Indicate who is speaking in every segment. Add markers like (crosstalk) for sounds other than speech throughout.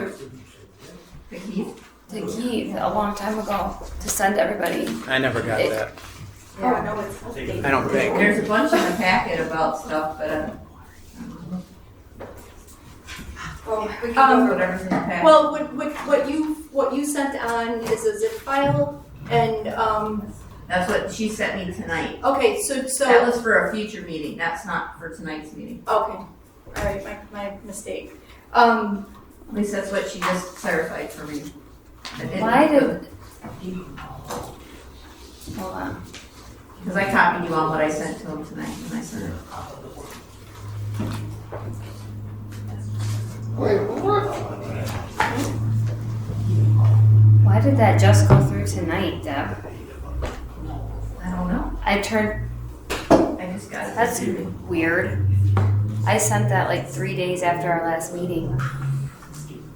Speaker 1: to to Keith, to Keith a long time ago to send everybody.
Speaker 2: I never got
Speaker 1: It-
Speaker 2: that.
Speaker 3: Yeah,
Speaker 4: Oh, no, it's
Speaker 2: I don't think.
Speaker 3: there's a bunch in the packet about stuff, but uh,
Speaker 4: Well, Oh,
Speaker 3: um,
Speaker 4: we can go over.
Speaker 3: whatever's in the packet.
Speaker 4: Well, what, what, what you, what you sent on is a zip file, and, um,
Speaker 3: That's what she sent me tonight.
Speaker 4: okay, so,
Speaker 3: That
Speaker 4: so,
Speaker 3: was for a future meeting, that's not for tonight's meeting.
Speaker 4: okay, all right, my, my mistake. Um,
Speaker 3: At least that's what she just clarified for me. I didn't-
Speaker 1: Why did? Hold on.
Speaker 3: Cause I copied you on what I sent to him tonight when I sent it.
Speaker 5: Wait, what?
Speaker 1: Why did that just go through tonight, Deb?
Speaker 3: I don't know,
Speaker 1: I turned.
Speaker 3: I just got it.
Speaker 1: That's weird. I sent that like three days after our last meeting.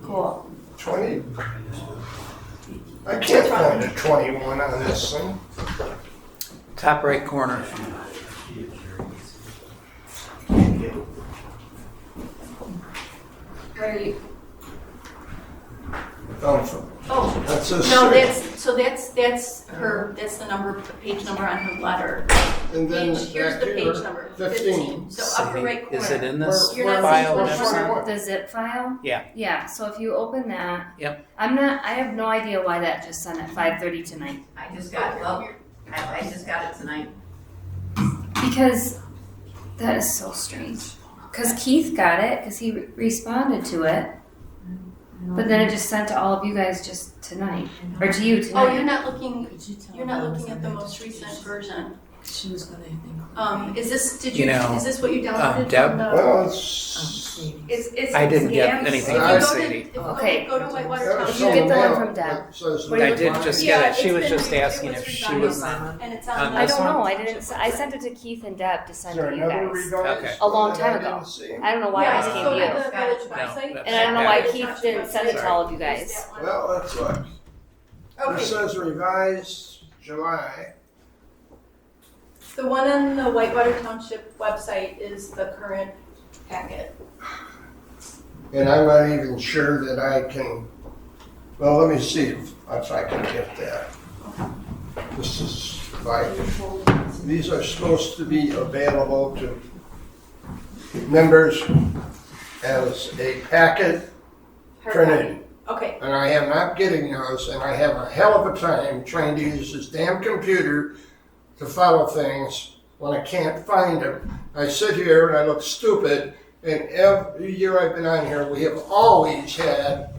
Speaker 1: Cool.
Speaker 5: Twenty? I can't find a twenty-one on this thing.
Speaker 2: Top right corner.
Speaker 4: where are you,
Speaker 5: Oh,
Speaker 4: oh,
Speaker 5: that's a
Speaker 4: no,
Speaker 5: six.
Speaker 4: that's, so that's, that's her, that's the number, page number on her letter.
Speaker 5: And then
Speaker 4: Page, here's
Speaker 5: back
Speaker 4: the page
Speaker 5: here,
Speaker 4: number,
Speaker 5: 15.
Speaker 4: fifteen, so upper right corner.
Speaker 2: Is it in this
Speaker 4: You're not
Speaker 2: file?
Speaker 4: supposed
Speaker 2: next
Speaker 4: to-
Speaker 2: time?
Speaker 1: The zip file?
Speaker 2: Yeah.
Speaker 1: Yeah, so if you open that.
Speaker 2: Yep.
Speaker 1: I'm not, I have no idea why that just sent at five thirty tonight.
Speaker 3: I just got, well, I, I just got it tonight.
Speaker 1: Because that is so strange. Because Keith got it, because he re- responded to it, but then it just sent to all of you guys just tonight, or to you
Speaker 4: Oh,
Speaker 1: tonight.
Speaker 4: you're not looking,
Speaker 6: Could you tell
Speaker 4: you're not
Speaker 6: them
Speaker 4: looking at the
Speaker 6: something?
Speaker 4: most recent version.
Speaker 6: She was gonna include.
Speaker 4: Um, is this, did
Speaker 2: You
Speaker 4: you,
Speaker 2: know,
Speaker 4: is this what you
Speaker 2: um,
Speaker 4: downloaded
Speaker 2: Deb?
Speaker 4: from the?
Speaker 5: Well,
Speaker 6: um,
Speaker 5: it's.
Speaker 6: see.
Speaker 4: It's, it's.
Speaker 2: I didn't get
Speaker 4: scams.
Speaker 2: anything
Speaker 4: If you
Speaker 5: from
Speaker 4: go to-
Speaker 2: Sadie.
Speaker 4: if you go-
Speaker 1: Okay.
Speaker 4: Go to Whitewater
Speaker 5: that was
Speaker 1: You
Speaker 4: County.
Speaker 1: get the one
Speaker 5: somewhere
Speaker 1: from Deb.
Speaker 5: that says
Speaker 4: Where
Speaker 2: I
Speaker 4: you
Speaker 2: did
Speaker 4: look-
Speaker 2: just
Speaker 4: Yeah,
Speaker 2: get it. She
Speaker 4: it's
Speaker 2: was
Speaker 4: been
Speaker 2: just
Speaker 4: re- it
Speaker 2: asking
Speaker 4: was
Speaker 2: if she
Speaker 4: redone.
Speaker 2: was.
Speaker 4: And it's on.
Speaker 2: on
Speaker 4: the-
Speaker 1: Uh, I
Speaker 2: this
Speaker 1: don't
Speaker 2: one?
Speaker 1: know. I didn't. s- I sent it to Keith and Deb to
Speaker 5: Is
Speaker 1: send
Speaker 5: there
Speaker 1: to you
Speaker 5: another
Speaker 1: guys.
Speaker 5: revised?
Speaker 2: Okay.
Speaker 1: A long
Speaker 5: one
Speaker 1: time
Speaker 5: that I
Speaker 1: ago.
Speaker 5: didn't see?
Speaker 1: I don't know why
Speaker 4: Yeah,
Speaker 1: I
Speaker 4: it's
Speaker 1: just
Speaker 4: still
Speaker 1: came to
Speaker 4: on
Speaker 1: you,
Speaker 4: the village website.
Speaker 2: that's-
Speaker 1: and I don't know why
Speaker 4: It's
Speaker 1: Keith
Speaker 4: not
Speaker 1: didn't send it to
Speaker 4: Sorry.
Speaker 1: all of you
Speaker 4: It's
Speaker 1: guys.
Speaker 4: that one.
Speaker 5: Well, that's what, it
Speaker 4: Okay,
Speaker 5: says revised July.
Speaker 4: the one on the Whitewater Township website is the current packet.
Speaker 5: And I'm not even sure that I can, well, let me see if, if I can get that. This is like, these are supposed to be available to members as a packet
Speaker 4: Hard copy.
Speaker 5: printed.
Speaker 4: Okay,
Speaker 5: And I am not getting those, and I have a hell of a time trying to use this damn computer to follow things when I can't find them. I sit here and I look stupid, and every year I've been on here, we have always had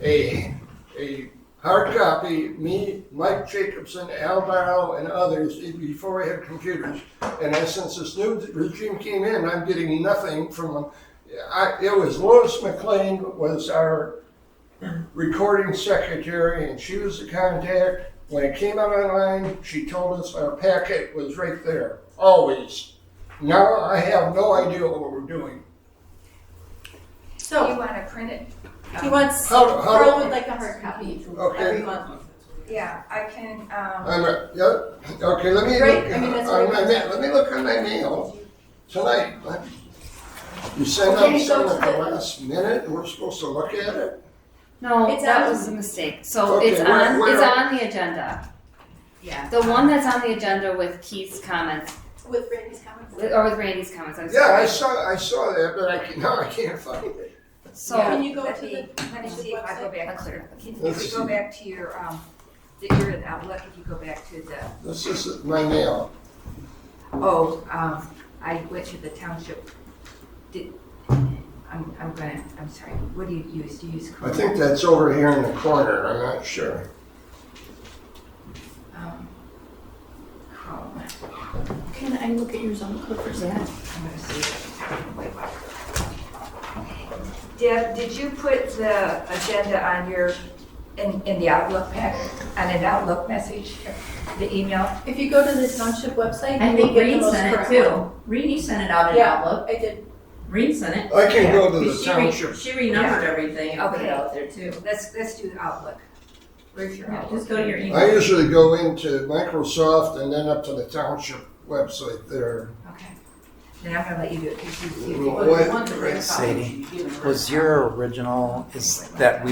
Speaker 5: a, a hard copy, me, Mike Jacobson, Al Barrow, and others, e- before I had computers. And as since this new regime came in, I'm getting nothing from them. I, it was Lois McLean was our recording secretary, and she was the contact. When it came out online, she told us our packet was right there, always. Now I have no idea what we're doing.
Speaker 4: so
Speaker 7: want to print it?
Speaker 4: he wants,
Speaker 5: How- how-
Speaker 4: Pearl would like a hard copy every
Speaker 5: Okay,
Speaker 4: month.
Speaker 7: Yeah, I can, um,
Speaker 5: I'm, a- yep, okay, let me
Speaker 4: Right,
Speaker 5: look,
Speaker 4: I mean, that's
Speaker 5: on
Speaker 4: what
Speaker 5: my
Speaker 4: it
Speaker 5: ma- let me look on my mail tonight. Let- You sent
Speaker 4: Okay,
Speaker 5: out
Speaker 4: so
Speaker 5: something
Speaker 4: to
Speaker 5: at the
Speaker 4: the-
Speaker 5: last minute, and we're supposed to look at it?
Speaker 1: No,
Speaker 4: It's
Speaker 1: that
Speaker 4: on-
Speaker 1: was a mistake. So
Speaker 5: Okay,
Speaker 1: it's
Speaker 5: where-
Speaker 1: on.
Speaker 5: where-
Speaker 1: It's on the agenda.
Speaker 3: Yeah.
Speaker 1: The one that's on the agenda with Keith's comments
Speaker 4: With Randy's comments.
Speaker 1: with, or with Randy's comments. I'm
Speaker 5: Yeah,
Speaker 1: sorry.
Speaker 5: I saw, I saw that, but I can, now I can't (laughs) find it.
Speaker 1: so
Speaker 7: Yeah.
Speaker 4: Can you go
Speaker 7: Let
Speaker 4: to
Speaker 7: me-
Speaker 4: the,
Speaker 7: let me see if I go
Speaker 1: I
Speaker 7: back to,
Speaker 1: cleared.
Speaker 7: can can we go back to your, um, the your outlook, if you go back to the,
Speaker 5: This is my mail.
Speaker 7: oh, um, I went to the township. Did, I'm, I'm gonna, I'm sorry, what do you use? Do you use?
Speaker 5: I
Speaker 7: Chrome?
Speaker 5: think that's over here in the corner, I'm not sure.
Speaker 7: Um, Chrome,
Speaker 4: can I look at yours on the clip for a second?
Speaker 7: I'm gonna see. Wait, wait. Deb, did you put the agenda on your, in, in the Outlook pack, on an Outlook message, the email?
Speaker 4: If you go to the township website,
Speaker 3: I
Speaker 4: you will
Speaker 3: think
Speaker 4: get the
Speaker 3: Reed
Speaker 4: most
Speaker 3: sent it
Speaker 4: current one.
Speaker 3: too. Reed sent it out in
Speaker 4: Yeah.
Speaker 3: Outlook.
Speaker 4: I did,
Speaker 3: Reed sent it.
Speaker 5: I can go to
Speaker 3: But
Speaker 5: the
Speaker 3: she re-
Speaker 5: township.
Speaker 3: She renumbered everything and put it
Speaker 7: Okay.
Speaker 3: out there too.
Speaker 7: Let's, let's do Outlook. Where's your
Speaker 3: Yeah,
Speaker 7: Outlook?
Speaker 3: Just go to your
Speaker 5: I
Speaker 3: email.
Speaker 5: usually go into Microsoft and then up to the township website there.
Speaker 7: Okay. Then I'm gonna let you do it, because you, you.
Speaker 5: Well,
Speaker 3: Well,
Speaker 5: what-
Speaker 3: the one that they're
Speaker 2: Sadie,
Speaker 3: following, you give them a
Speaker 2: Was your original, is that we